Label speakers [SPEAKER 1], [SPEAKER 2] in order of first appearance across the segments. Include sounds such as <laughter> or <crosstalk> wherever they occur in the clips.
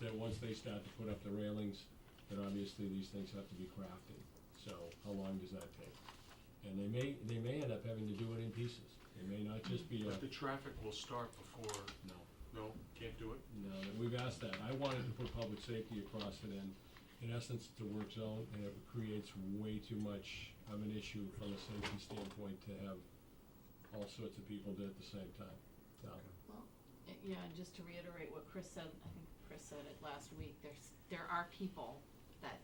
[SPEAKER 1] then once they start to put up the railings, then obviously these things have to be crafted. So how long does that take? And they may, they may end up having to do it in pieces. It may not just be a,
[SPEAKER 2] But the traffic will start before,
[SPEAKER 1] no,
[SPEAKER 2] no, can't do it?
[SPEAKER 1] no, we've asked that. I wanted to put public safety across it and in essence, it's a work zone and it creates way too much of an issue from a safety standpoint to have all sorts of people do it at the same time. So,
[SPEAKER 3] Uh, Yeah, and just to reiterate what Chris said, I think Chris said it last week, there's, there are people that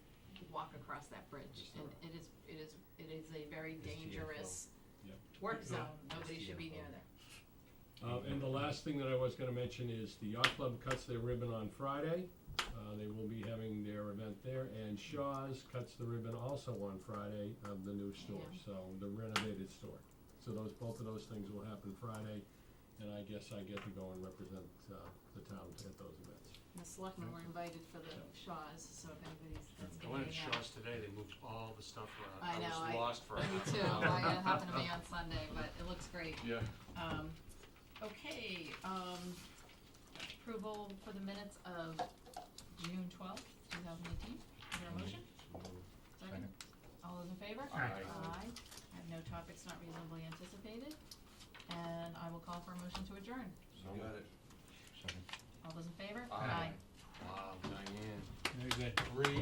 [SPEAKER 3] walk across that bridge.
[SPEAKER 1] Yes,
[SPEAKER 3] And it is, it is, it is a very
[SPEAKER 4] It's
[SPEAKER 3] dangerous
[SPEAKER 1] Yep.
[SPEAKER 3] work
[SPEAKER 2] Yeah.
[SPEAKER 3] zone, nobody should be near
[SPEAKER 4] TFO.
[SPEAKER 3] there.
[SPEAKER 1] Uh, and the last thing that I was gonna mention is the yacht club cuts their ribbon on Friday. Uh, they will be having their event there, and Shaw's cuts the ribbon also on Friday of the new store,
[SPEAKER 3] Yeah.
[SPEAKER 1] so the renovated store. So those, both of those things will happen Friday, and I guess I get to go and represent, uh, the town at those events.
[SPEAKER 3] And the selectmen were invited for the Shaws, so if anybody's, that's
[SPEAKER 2] I
[SPEAKER 3] gonna
[SPEAKER 2] went
[SPEAKER 3] be
[SPEAKER 2] to
[SPEAKER 3] an
[SPEAKER 2] Shaw's today, they moved all the stuff
[SPEAKER 3] I
[SPEAKER 2] around, I
[SPEAKER 3] know,
[SPEAKER 2] was
[SPEAKER 3] I-
[SPEAKER 2] lost for a
[SPEAKER 3] <laughs> Me
[SPEAKER 2] half <laughs>
[SPEAKER 3] too,
[SPEAKER 2] an hour.
[SPEAKER 3] I uh, happened to be on Sunday, but it looks great.
[SPEAKER 2] Yeah.
[SPEAKER 3] Um, okay, um, approval for the minutes of June twelfth, two thousand eighteen, is there a motion? Second,
[SPEAKER 4] Second.
[SPEAKER 3] all those in favor?
[SPEAKER 2] Aye.
[SPEAKER 3] Aye, I have no topics not reasonably anticipated, and I will call for a motion to adjourn,
[SPEAKER 4] So got it. Second.
[SPEAKER 3] all those in favor?
[SPEAKER 2] Aye. Wow, Diane,
[SPEAKER 4] Very good.
[SPEAKER 2] three